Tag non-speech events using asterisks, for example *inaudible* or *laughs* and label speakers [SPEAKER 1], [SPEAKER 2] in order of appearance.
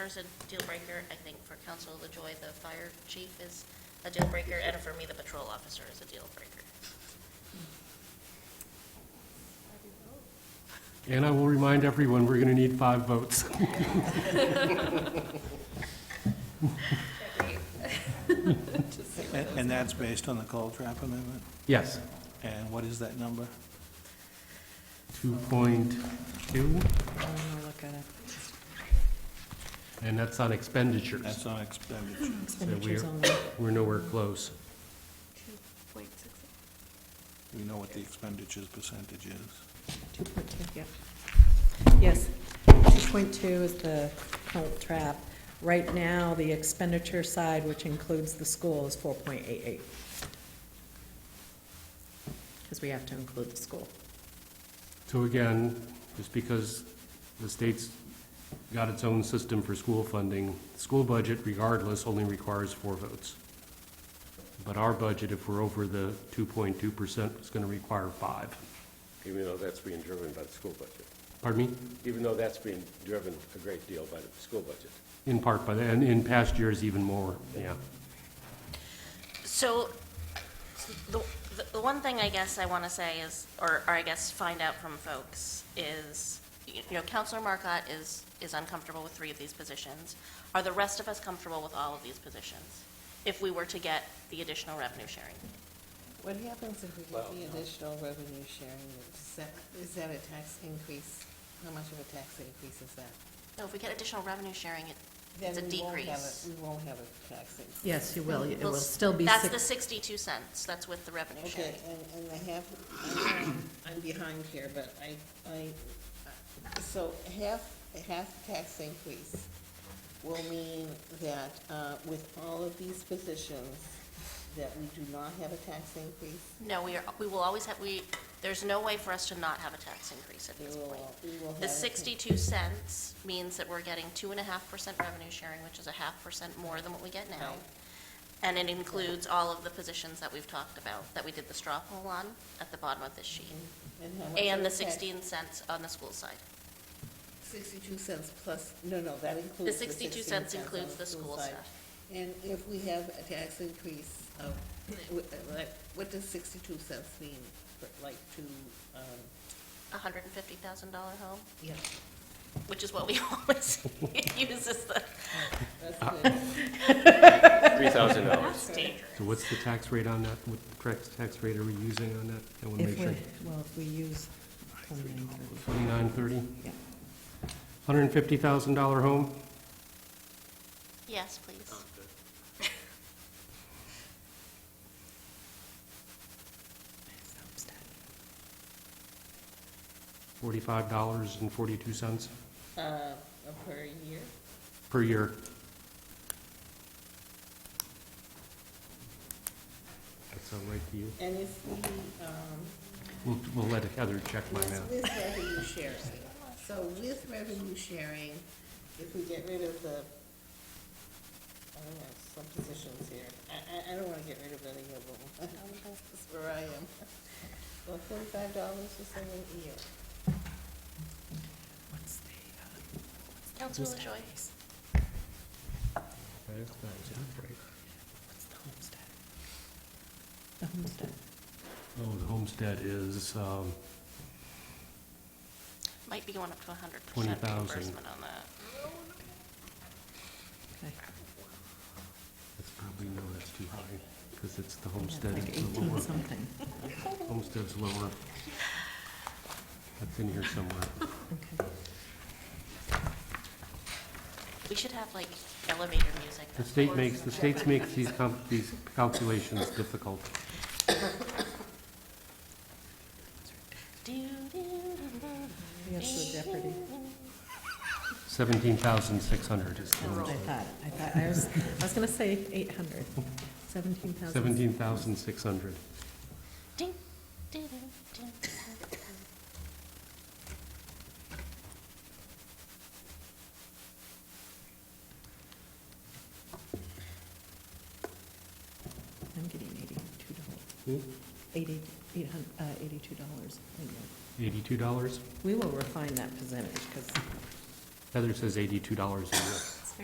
[SPEAKER 1] There's a deal breaker, I think, for Council LaJoy, the fire chief is a deal breaker, and for me, the patrol officer is a deal breaker.
[SPEAKER 2] And I will remind everyone, we're going to need five votes.
[SPEAKER 3] And and that's based on the coal trap amendment?
[SPEAKER 2] Yes.
[SPEAKER 3] And what is that number?
[SPEAKER 2] 2.2,
[SPEAKER 4] I'm gonna Oh, look at it.
[SPEAKER 2] and that's on expenditures.
[SPEAKER 3] That's on expenditure.
[SPEAKER 4] Expenditures
[SPEAKER 2] we're-
[SPEAKER 4] only.
[SPEAKER 2] We're nowhere close.
[SPEAKER 3] We know what the expenditures percentage is.
[SPEAKER 4] 2.2, yep. Yes, 2.2 is the cult trap. Right now, the expenditure side, which includes the school, is 4.88. Because we have to include the school.
[SPEAKER 2] So again, just because the state's got its own system for school funding, school budget regardless only requires four votes. But our budget, if we're over the 2.2%, is going to require five.
[SPEAKER 5] even though that's being driven by the school budget,
[SPEAKER 2] Pardon me?
[SPEAKER 5] even though that's being driven a great deal by the school budget.
[SPEAKER 2] In part by that, and in past years even more, yeah.
[SPEAKER 1] So, the, the- the one thing I guess I want to say is, or, or I guess find out from folks, is, you know, Counselor Marcotte is, is uncomfortable with three of these positions. Are the rest of us comfortable with all of these positions, if we were to get the additional revenue sharing?
[SPEAKER 6] What happens if we get the additional revenue sharing? Is that, is that a tax increase? How much of a tax increase is that?
[SPEAKER 1] No, if we get additional revenue sharing, it- it's a
[SPEAKER 6] Then we won't have
[SPEAKER 1] decrease.
[SPEAKER 6] a- We won't have a tax increase.
[SPEAKER 4] Yes, you will. It
[SPEAKER 1] Well,
[SPEAKER 4] will still be
[SPEAKER 1] That's the
[SPEAKER 4] six.
[SPEAKER 1] sixty-two cents, that's with the revenue sharing.
[SPEAKER 6] Okay, and, and I have, I'm- I'm behind here, but I, I, so half, half tax increase will mean that uh, with all of these positions, that we do not have a tax increase?
[SPEAKER 1] No, we are, we will always have, we, there's no way for us to not have a tax increase at
[SPEAKER 6] We
[SPEAKER 1] this point.
[SPEAKER 6] will, we will have.
[SPEAKER 1] The
[SPEAKER 6] a-
[SPEAKER 1] sixty-two cents means that we're getting two and a half percent revenue sharing, which is a half percent more than what we get now.
[SPEAKER 6] Right.
[SPEAKER 1] And it includes all of the positions that we've talked about, that we did the straw poll on at the bottom of this sheet.
[SPEAKER 6] how much of
[SPEAKER 1] And
[SPEAKER 6] a
[SPEAKER 1] the
[SPEAKER 6] tax-
[SPEAKER 1] sixteen cents on the school side.
[SPEAKER 6] 62 cents plus, no, no, that
[SPEAKER 1] The
[SPEAKER 6] includes the 16
[SPEAKER 1] sixty-two cents
[SPEAKER 6] on
[SPEAKER 1] includes the school
[SPEAKER 6] side.
[SPEAKER 1] stuff.
[SPEAKER 6] And if we have a tax increase of, wh- like, what does 62 cents mean, for, like, to, um,
[SPEAKER 1] A hundred and fifty thousand dollar home,
[SPEAKER 6] yeah,
[SPEAKER 1] which is what we *laughs* always use as the,
[SPEAKER 6] that's good.
[SPEAKER 5] Three thousand dollars.
[SPEAKER 2] So what's the tax rate on that? What correct tax rate are we using on that? I want to
[SPEAKER 4] If
[SPEAKER 2] make
[SPEAKER 4] we,
[SPEAKER 2] sure.
[SPEAKER 4] well, if we use.
[SPEAKER 2] Twenty-nine thirty?
[SPEAKER 4] Yeah.
[SPEAKER 2] Hundred and fifty thousand dollar home?
[SPEAKER 1] yes, please.
[SPEAKER 2] Forty-five dollars and forty-two cents
[SPEAKER 6] Uh, per year,
[SPEAKER 2] per year. That sound right to you?
[SPEAKER 6] and if we, um,
[SPEAKER 2] We'll, we'll let Heather check my
[SPEAKER 6] Yes,
[SPEAKER 2] math.
[SPEAKER 6] with revenue sharing. So with revenue sharing, if we get rid of the, I don't know, some positions here, I, I, I don't wanna get rid of any of them. *laughs* That's where I am. Well, thirty-five dollars or something a year.
[SPEAKER 4] uh,
[SPEAKER 1] Councilor LaJoy?
[SPEAKER 4] The homestead.
[SPEAKER 2] Oh, the homestead is, um,
[SPEAKER 1] Might be going up to a hundred percent
[SPEAKER 2] 20,000.
[SPEAKER 1] reimbursement on that.
[SPEAKER 4] Okay.
[SPEAKER 2] that's probably, no, that's too high, because it's the
[SPEAKER 4] It's
[SPEAKER 2] homestead.
[SPEAKER 4] like
[SPEAKER 2] is the
[SPEAKER 4] 18
[SPEAKER 2] lower.
[SPEAKER 4] something.
[SPEAKER 2] Homestead's lower. That's in here somewhere.
[SPEAKER 4] Okay.
[SPEAKER 1] We should have like elevator music.
[SPEAKER 2] The
[SPEAKER 1] that
[SPEAKER 2] state
[SPEAKER 1] pours
[SPEAKER 2] makes,
[SPEAKER 1] in
[SPEAKER 2] the
[SPEAKER 1] background.
[SPEAKER 2] state makes these, com- these calculations difficult.
[SPEAKER 1] Do, do, do, do.
[SPEAKER 4] Yes, the Jeopardy.
[SPEAKER 2] Seventeen thousand six hundred is
[SPEAKER 4] That's what I thought. I thought, I was, I was gonna say 800, 17,000.
[SPEAKER 2] seventeen thousand six hundred.
[SPEAKER 1] Ding, ding, ding, ding, ding.
[SPEAKER 4] I'm getting eighty-two dollars.
[SPEAKER 2] Hmm?
[SPEAKER 4] Eighty, eight hun, uh, eighty-two dollars.
[SPEAKER 2] Eighty-two dollars?
[SPEAKER 4] We will refine that percentage, because
[SPEAKER 2] Heather says eighty-two dollars a year.